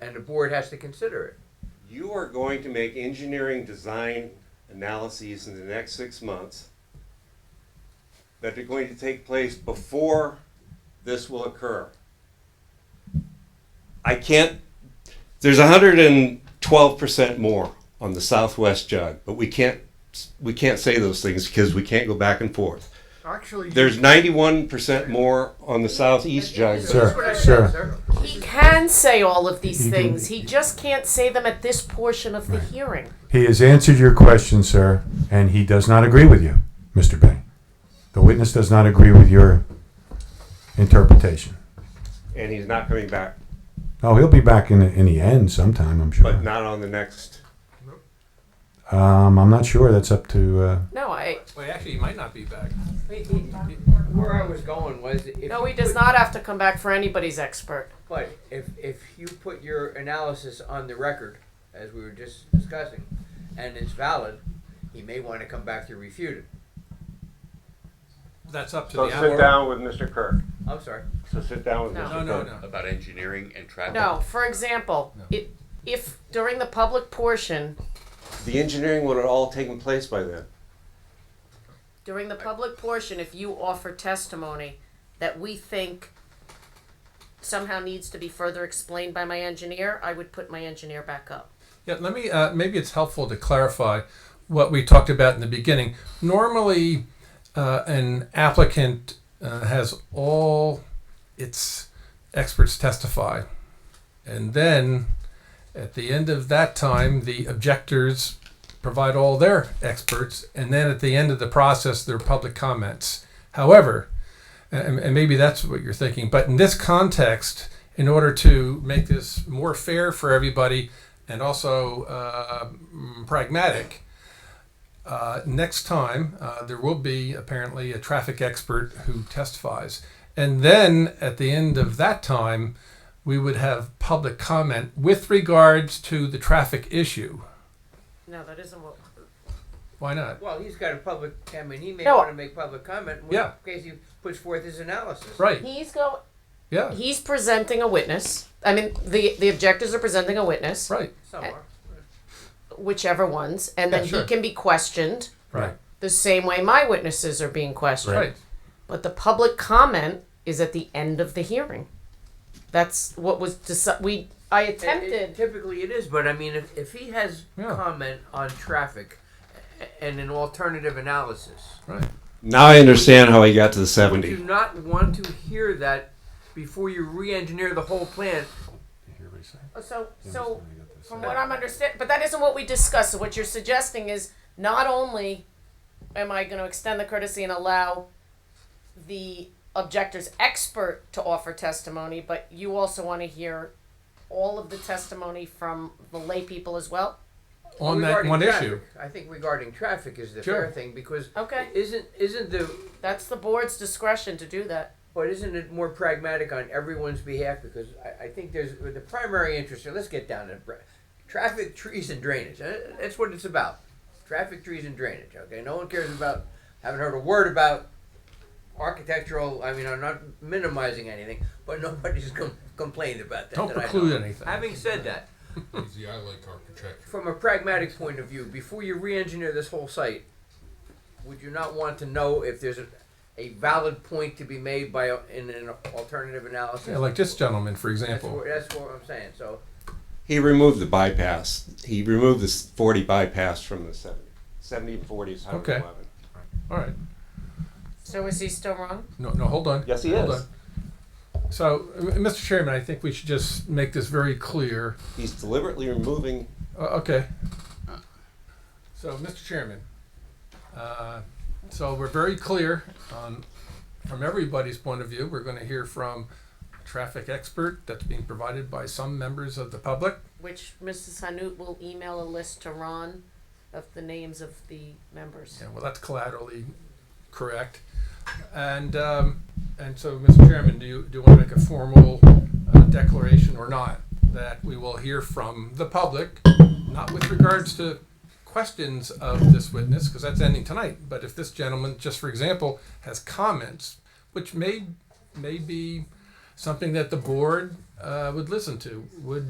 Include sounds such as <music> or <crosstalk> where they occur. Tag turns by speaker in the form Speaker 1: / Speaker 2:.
Speaker 1: and the board has to consider it.
Speaker 2: You are going to make engineering design analyses in the next six months that are going to take place before this will occur. I can't, there's hundred and twelve percent more on the southwest jug, but we can't, we can't say those things because we can't go back and forth.
Speaker 3: Actually,
Speaker 2: There's ninety-one percent more on the southeast jug.
Speaker 1: That's what I said,
Speaker 4: sure.
Speaker 1: sir.
Speaker 5: He can say all of these things. He just can't say them at this portion of the hearing.
Speaker 4: He has answered your question, sir, and he does not agree with you, Mr. Bing. The witness does not agree with your interpretation.
Speaker 2: And he's not coming back,
Speaker 4: Oh, he'll be back in the, in the end sometime, I'm sure.
Speaker 2: but not on the next.
Speaker 4: Um, I'm not sure. That's up to. Uh,
Speaker 5: No, I.
Speaker 6: Well, actually, he might not be back.
Speaker 1: Where I was going was if.
Speaker 5: No,
Speaker 1: you
Speaker 5: he does
Speaker 1: put-
Speaker 5: not have to come back for anybody's expert.
Speaker 1: But if, if you put your analysis on the record, as we were just discussing, and it's valid, he may want to come back to refute it.
Speaker 6: That's up to
Speaker 2: So
Speaker 6: the
Speaker 2: sit
Speaker 6: hour.
Speaker 2: down with Mr. Kirk.
Speaker 1: I'm sorry.
Speaker 2: So sit down with
Speaker 5: No.
Speaker 2: Mr.
Speaker 6: No,
Speaker 2: Kirk.
Speaker 6: no, no.
Speaker 7: about engineering and traffic.
Speaker 5: No, for example, it, if during the public portion,
Speaker 2: The engineering would have all taken place by then.
Speaker 5: during the public portion, if you offer testimony that we think somehow needs to be further explained by my engineer, I would put my engineer back up.
Speaker 6: Yeah, let me. Uh, maybe it's helpful to clarify what we talked about in the beginning. Normally, uh, an applicant uh, has all its experts testify, and then at the end of that time, the objectors provide all their experts, and then at the end of the process, their public comments. However, and, and maybe that's what you're thinking. But in this context, in order to make this more fair for everybody and also uh, mm, pragmatic, uh, next time uh, there will be apparently a traffic expert who testifies. And then at the end of that time, we would have public comment with regards to the traffic issue.
Speaker 5: No, that isn't what.
Speaker 6: Why not?
Speaker 1: Well, he's got a public, I mean, he may
Speaker 5: No.
Speaker 1: want to make public comment in
Speaker 6: Yeah.
Speaker 1: which case he puts forth his analysis.
Speaker 6: Right.
Speaker 5: He's go.
Speaker 6: Yeah.
Speaker 5: He's presenting a witness. I mean, the the objectors are presenting a witness,
Speaker 6: Right.
Speaker 1: Some are.
Speaker 5: whichever ones, and
Speaker 6: Yeah,
Speaker 5: then
Speaker 6: sure.
Speaker 5: he can be questioned
Speaker 6: Right.
Speaker 5: the same way my witnesses are being questioned.
Speaker 6: Right.
Speaker 5: But the public comment is at the end of the hearing. That's what was deci- we I
Speaker 1: And it-
Speaker 5: attempted.
Speaker 1: Typically it is, but I mean, if, if he has
Speaker 6: Yeah.
Speaker 1: comment on traffic a- and an alternative analysis,
Speaker 2: Now I understand how he got to the
Speaker 1: would you
Speaker 2: 70.
Speaker 1: not want to hear that before you re-engineer the whole plan?
Speaker 5: So so from what I'm understand, but that isn't what we discussed. So what you're suggesting is not only am I going to extend the courtesy and allow the objector's expert to offer testimony, but you also want to hear all of the testimony from the lay people as well.
Speaker 6: On that
Speaker 1: Regarding
Speaker 6: one
Speaker 1: traffic,
Speaker 6: issue.
Speaker 1: I think regarding traffic is the
Speaker 6: Sure.
Speaker 1: fair thing because
Speaker 5: Okay.
Speaker 1: isn't isn't the
Speaker 5: That's the board's discretion to do that.
Speaker 1: but isn't it more pragmatic on everyone's behalf? Because I, I think there's the primary interest. Here, let's get down to br- traffic, trees, and drainage. Uh, That's what it's about. Traffic, trees, and drainage. Okay, no one cares about. Haven't heard a word about architectural. I mean, I'm not minimizing anything, but nobody's <laughs> com- complained about that.
Speaker 6: Don't
Speaker 1: that I know
Speaker 6: preclude
Speaker 1: of.
Speaker 6: anything.
Speaker 1: Having said that,
Speaker 8: Easy, I like architecture.
Speaker 1: from a pragmatic point of view, before you re-engineer this whole site, would you not want to know if there's a, a valid point to be made by a, in an alternative analysis?
Speaker 6: Yeah, like this gentleman, for
Speaker 1: that's
Speaker 6: example.
Speaker 1: what, that's what I'm saying. So
Speaker 2: He removed the bypass. He removed the 40 bypass from the 70. 70 and 40 is 111.
Speaker 6: All right.
Speaker 5: So is he still wrong?
Speaker 6: No, no, hold on.
Speaker 2: Yes, he
Speaker 6: hold
Speaker 2: is.
Speaker 6: on. So, m- Mr. Chairman, I think we should just make this very clear.
Speaker 2: He's deliberately removing.
Speaker 6: Uh, okay. So, Mr. Chairman, uh, so we're very clear on, from everybody's point of view. We're going to hear from a traffic expert that's being provided by some members of the public.
Speaker 5: Which Mrs. Hanut will email a list to Ron of the names of the members.
Speaker 6: Yeah, well, that's collaterally correct. And, um, and so, Mr. Chairman, do you, do you want to make a formal uh, declaration or not? That we will hear from the public, not with regards to questions of this witness, because that's ending tonight. But if this gentleman, just for example, has comments, which may, may be something that the board, uh, would listen to, would